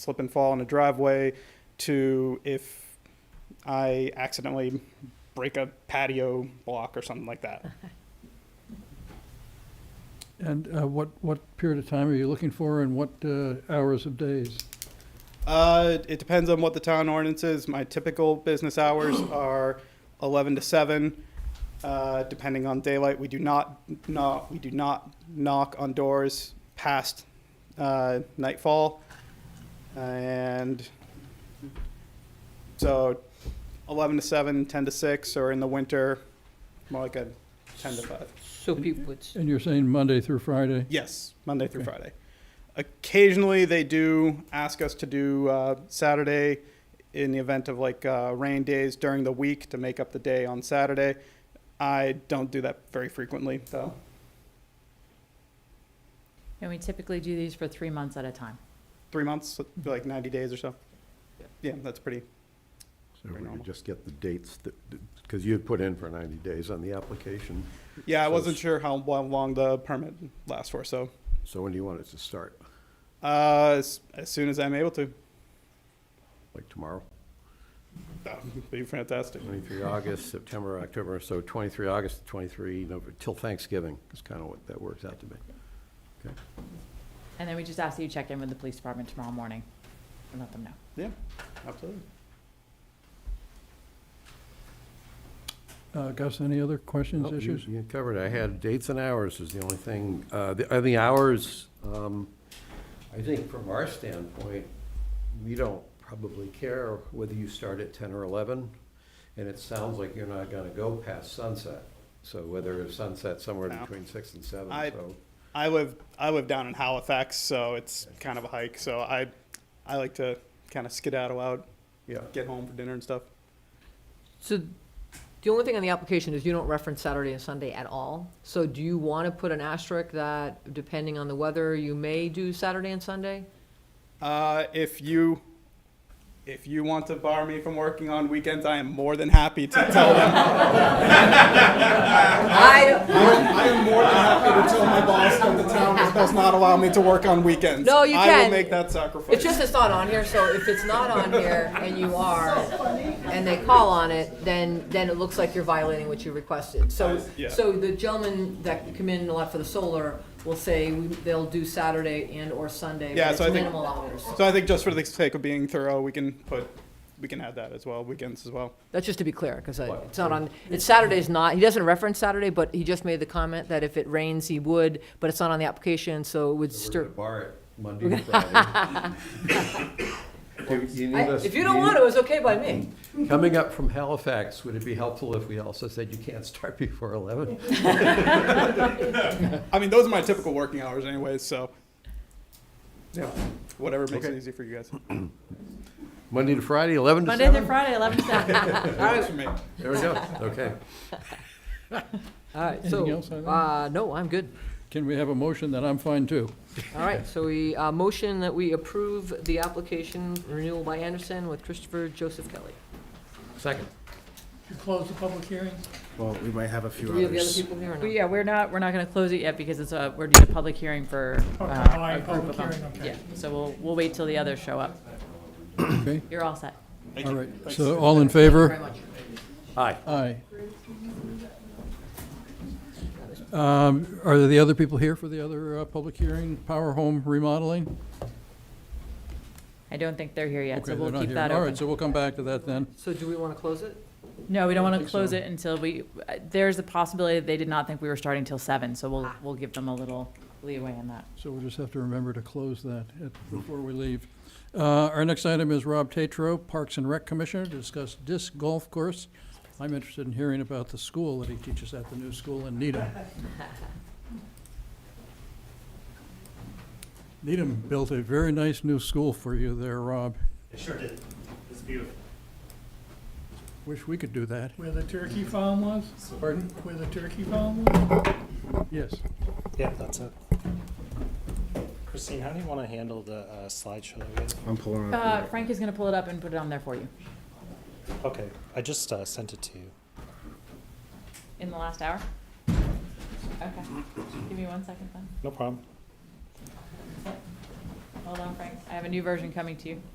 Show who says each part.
Speaker 1: slip and fall in a driveway to if I accidentally break a patio block or something like that.
Speaker 2: And uh, what, what period of time are you looking for and what uh, hours of days?
Speaker 1: Uh, it depends on what the town ordinance is. My typical business hours are 11 to 7, uh, depending on daylight. We do not, not, we do not knock on doors past uh, nightfall. And so 11 to 7, 10 to 6, or in the winter, more like a 10 to 5.
Speaker 3: So people would, s-
Speaker 2: And you're saying Monday through Friday?
Speaker 1: Yes, Monday through
Speaker 2: Okay.
Speaker 1: Friday. Occasionally, they do ask us to do uh, Saturday in the event of like uh, rain days during the week to make up the day on Saturday. I don't do that very frequently, though.
Speaker 4: And we typically do these for three months at a time.
Speaker 1: Three months, like 90 days or so. Yeah, that's pretty.
Speaker 5: So if
Speaker 1: Very
Speaker 5: we
Speaker 1: normal.
Speaker 5: could just get the dates that, because you had put in for 90 days on the application.
Speaker 1: Yeah, I
Speaker 5: So
Speaker 1: wasn't
Speaker 5: it's-
Speaker 1: sure how lo- long the permit lasts for, so
Speaker 5: So when do you want it to start?
Speaker 1: uh, as, as soon as I'm able to,
Speaker 5: Like tomorrow?
Speaker 1: that would be fantastic.
Speaker 5: 23 August, September, October, so 23 August, to 23, November, till Thanksgiving is kind of what that works out to be.
Speaker 4: And then we just ask that you check in with the police department tomorrow morning and let them know.
Speaker 1: Yeah, absolutely.
Speaker 2: Uh, Gus, any other questions,
Speaker 5: Oh, you-
Speaker 2: issues?
Speaker 5: You covered, it. I had dates and hours is the only thing. Uh, the- Are the hours, um, I think from our standpoint, we don't probably care whether you start at 10 or 11, and it sounds like you're not going to go past sunset. So whether it's sunset somewhere
Speaker 1: No.
Speaker 5: between 6 and 7,
Speaker 1: I-
Speaker 5: so.
Speaker 1: I live I live down in Halifax, so it's kind of a hike. So I I like to kind of skedaddle out,
Speaker 5: Yeah,
Speaker 1: get home for dinner and stuff.
Speaker 3: so the only thing on the application is you don't reference Saturday and Sunday at all. So do you want to put an asterisk that depending on the weather, you may do Saturday and Sunday?
Speaker 1: Uh, if you if you want to bar me from working on weekends, I am more than happy to tell them.
Speaker 3: I,
Speaker 1: I am more than happy to tell my boss that the town does not allow me to work on weekends.
Speaker 3: No, you
Speaker 1: I will
Speaker 3: can.
Speaker 1: make that sacrifice.
Speaker 3: it's just it's not on here, so if it's not on here and you are, and they call on it, then, then it looks like you're violating what you requested. So,
Speaker 1: Yeah.
Speaker 3: so the gentleman that come in a lot for the solar will say we- they'll do Saturday and or Sunday,
Speaker 1: Yeah,
Speaker 3: but it's
Speaker 1: so I think-
Speaker 3: minimal hours.
Speaker 1: so I think just for the sake of being thorough, we can put we can add that as well, weekends as well.
Speaker 3: That's just to be clear, because it's not on, it's Saturday's not, he doesn't reference Saturday, but he just made the comment that if it rains, he would, but it's not on the application, so it would
Speaker 5: so we're
Speaker 3: stir.
Speaker 5: at the bar at Monday and Friday. Do you need
Speaker 3: I-
Speaker 5: us-
Speaker 3: If you don't want to, it's okay by me.
Speaker 5: Coming up from Halifax, would it be helpful if we also said you can't start before 11?
Speaker 1: I mean, those are my typical working hours, anyways. So yeah, whatever makes it
Speaker 5: Okay.
Speaker 1: easy for you guys.
Speaker 5: Monday to Friday, 11 to 7?
Speaker 4: Monday through Friday, 11 to 7.
Speaker 1: All right. For me.
Speaker 5: There we go, okay.
Speaker 3: All right, so,
Speaker 2: Anything else on that?
Speaker 3: uh, no, I'm good.
Speaker 2: Can we have a motion that I'm fine too?
Speaker 3: All right, so we, uh, motion that we approve the application renewal by Anderson with Christopher Joseph Kelly.
Speaker 5: Second.
Speaker 6: You close the public hearing?
Speaker 7: Well, we might have a few
Speaker 3: Do we have the other
Speaker 7: others.
Speaker 3: people here or
Speaker 4: Well,
Speaker 3: not?
Speaker 4: yeah, we're not, we're not gonna close it yet because it's a, we're doing a public hearing for,
Speaker 6: Okay, all
Speaker 4: uh, a
Speaker 6: right,
Speaker 4: group of
Speaker 6: public
Speaker 4: them.
Speaker 6: hearing, okay.
Speaker 4: Yeah, so we'll, we'll wait till the others show up.
Speaker 2: Okay,
Speaker 4: You're all set.
Speaker 2: all right. So all in favor?
Speaker 3: Very much.
Speaker 5: Aye.
Speaker 2: Aye. Um, Are there the other people here for the other uh, public hearing, Power Home remodeling?
Speaker 4: I don't think they're here yet,
Speaker 2: Okay,
Speaker 4: so
Speaker 2: they're
Speaker 4: we'll
Speaker 2: not
Speaker 4: keep
Speaker 2: here.
Speaker 4: that
Speaker 2: All
Speaker 4: open.
Speaker 2: right, so we'll come back to that then.
Speaker 3: So do we want to close it?
Speaker 4: No, we don't
Speaker 2: I
Speaker 4: wanna
Speaker 2: think
Speaker 4: close
Speaker 2: so.
Speaker 4: it until we, uh, there's a possibility that they did not think we were starting till 7, so we'll, we'll give them a little leeway in that.
Speaker 2: So we'll just have to remember to close that at- before we leave. Uh, Our next item is Rob Tatro, Parks and Rec Commissioner, to discuss disc golf course. I'm interested in hearing about the school that he teaches at, the new school in Needham. Needham built a very nice new school for you there, Rob.
Speaker 8: It sure did. It's beautiful.
Speaker 2: Wish we could do that.
Speaker 6: Where the turkey farm was?
Speaker 2: Pardon?
Speaker 6: Where the turkey farm was?
Speaker 2: Yes.
Speaker 8: Yeah, that's it. Christine, how do you want to handle the uh, slideshow? that we had?
Speaker 7: I'm pulling
Speaker 4: Uh,
Speaker 7: up.
Speaker 4: Frank is gonna pull it up and put it on there for you.
Speaker 8: Okay, I just uh, sent it to you.
Speaker 4: In the last hour? Okay, give me one second then.
Speaker 8: No problem.
Speaker 4: Hold Hold on, Frank. I have a new version coming to you.